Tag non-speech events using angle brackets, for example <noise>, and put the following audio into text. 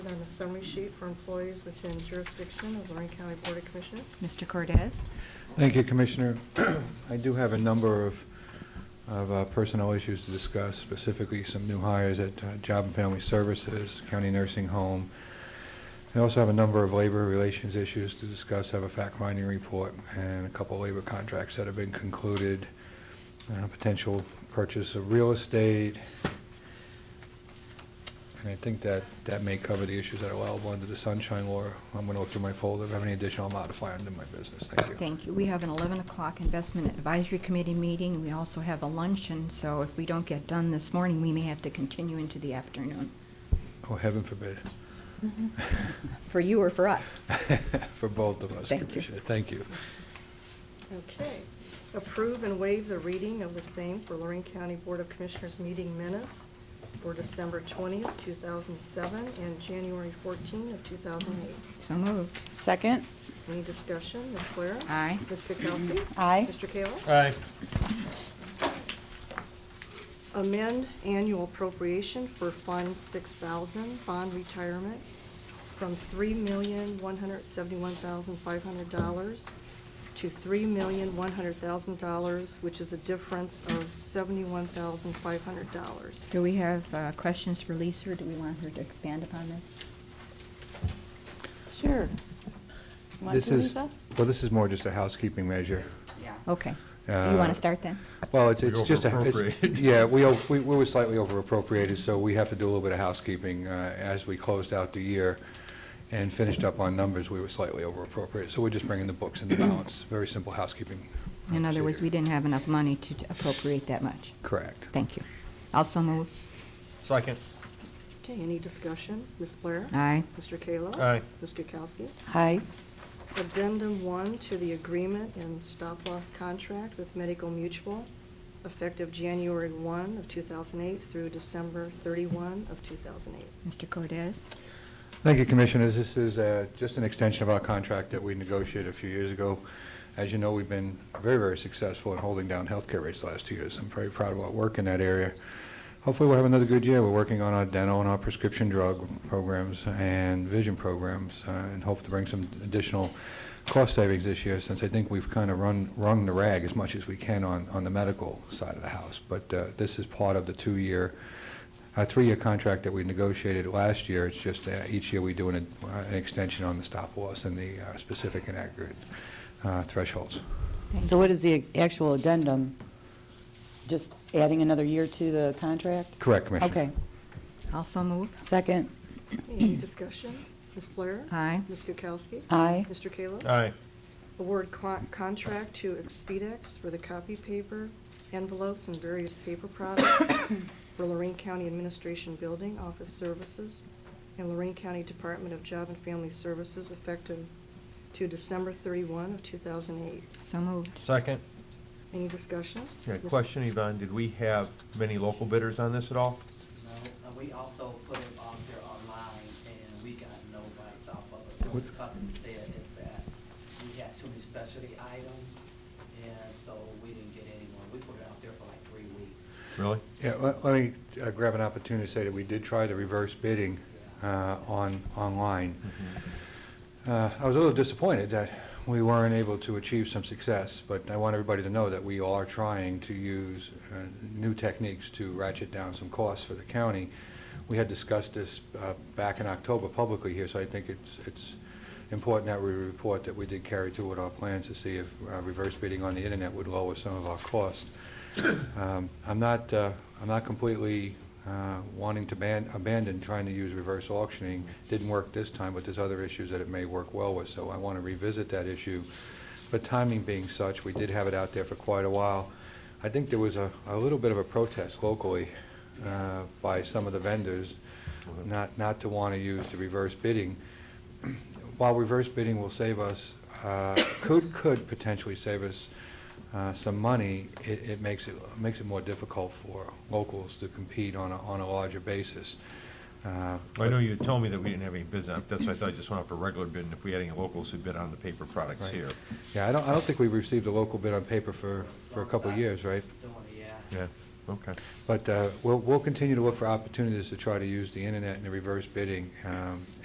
and a summary sheet for employees within jurisdiction of Lorraine County Board of Commissioners. Mr. Cordez? Thank you, Commissioner. <clears throat> I do have a number of, of uh, personnel issues to discuss, specifically some new hires at uh, Job and Family Services, County Nursing Home. I also have a number of labor relations issues to discuss, have a fact-finding report, and a couple of labor contracts that have been concluded, uh, potential purchase of real estate. And I think that, that may cover the issues that are allowable under the sunshine law. I'm going to look through my folder, if I have any additional, I'll modify under my business. Thank you. Thank you. We have an 11 o'clock Investment Advisory Committee meeting. We also have a luncheon, so if we don't get done this morning, we may have to continue into the afternoon, Oh, heaven forbid. <laughs> for you or for us. For both of us, Thank you. Commissioner. Thank you. Okay. Approve and waive the reading of the same for Lorraine County Board of Commissioners meeting minutes for December 20th, 2007, and January 14th of 2008. So moved. Second? Any discussion? Ms. Blair? Aye. Ms. Kukowski? Aye. Mr. Kayla? Aye. amend annual appropriation for Fund 6,000 bond retirement from $3,171,500 to $3,100,000, which is a difference of $71,500. Do we have uh, questions for Lisa, or do we want her to expand upon this? Sure. Want This to, is Lisa? Well, this is more just a housekeeping measure. Okay. You want Uh, to start then? Well, it's, We it's just a. it's- overappropriated. <laughs> Yeah, we, o- we we were slightly over appropriated, so we have to do a little bit of housekeeping. Uh, As we closed out the year and finished up on numbers, we were slightly over appropriated. So we're just bringing the books into balance. Very simple housekeeping. uh, In other words, we procedure. didn't have enough money to appropriate that much. Correct. Thank you. Also moved. Second. Okay, any discussion? Ms. Blair? Aye. Mr. Kayla? Aye. Ms. Kukowski? Aye. Addendum 1 to the agreement and stop-loss contract with Medical Mutual, effective January 1 of 2008 through December 31 of 2008. Mr. Cordez? Thank you, Commissioners. This is uh, just an extension of our contract that we negotiated a few years ago. As you know, we've been very, very successful in holding down healthcare rates the last two years. I'm very proud of our work in that area. Hopefully, we'll have another good year. We're working on our dental and our prescription drug programs and vision programs, uh, and hope to bring some additional cost savings this year, since I think we've kind of run, wrung the rag as much as we can on, on the medical side of the house. But uh, this is part of the two-year a three-year contract that we negotiated last year. It's just uh, each year we do an uh, an extension on the stop loss and the uh, specific and accurate uh, thresholds. Thank So what is the actual addendum? Just adding another year to the contract? Correct, Commissioner? Okay. Also moved. Second? Any discussion? Ms. Blair? Aye. Ms. Kukowski? Aye. Mr. Kayla? Aye. Award con- contract to Expedex for the copy paper, envelopes, and various paper products for Lorraine County Administration Building Office Services and Lorraine County Department of Job and Family Services effective to December 31 of 2008. So moved. Second. Any discussion? Yeah, Ms. question, Yvonne, did we have many local bidders on this at all? No, and we also put it out there online, and we got no bites off of it. What the company said is that we had too many specialty items, and so we didn't get anyone. We put it out there for like three weeks. Really? Yeah, let let me uh, grab an opportunity to say that we did try the reverse bidding uh, on, online. Uh, I was a little disappointed that we weren't able to achieve some success, but I want everybody to know that we are trying to use uh, new techniques to ratchet down some costs for the county. We had discussed this uh, back in October publicly here, so I think it's, it's important that we report that we did carry through with our plans to see if uh, reverse bidding on the internet would lower some of our costs. Um, I'm not, uh, I'm not completely uh, wanting to ban, abandon trying to use reverse auctioning. Didn't work this time, but there's other issues that it may work well with, so I want to revisit that issue. But timing being such, we did have it out there for quite a while. I think there was a, a little bit of a protest locally uh, by some of the vendors, not, not to want to use the reverse bidding while reverse bidding will save us, uh, could, could potentially save us uh, some money, it, it makes it, makes it more difficult for locals to compete on a, on a larger basis. Uh, I know you told me that we didn't have any bids on, it. that's why I thought I just went out for regular bid, and if we had any locals who bid on the paper products Right. here. Yeah, I don't, I don't think we've received a local bid on paper for, for a couple of years, right? Doing it, yeah. Yeah, okay. But uh, we'll, we'll continue to look for opportunities to try to use the internet and the reverse bidding um,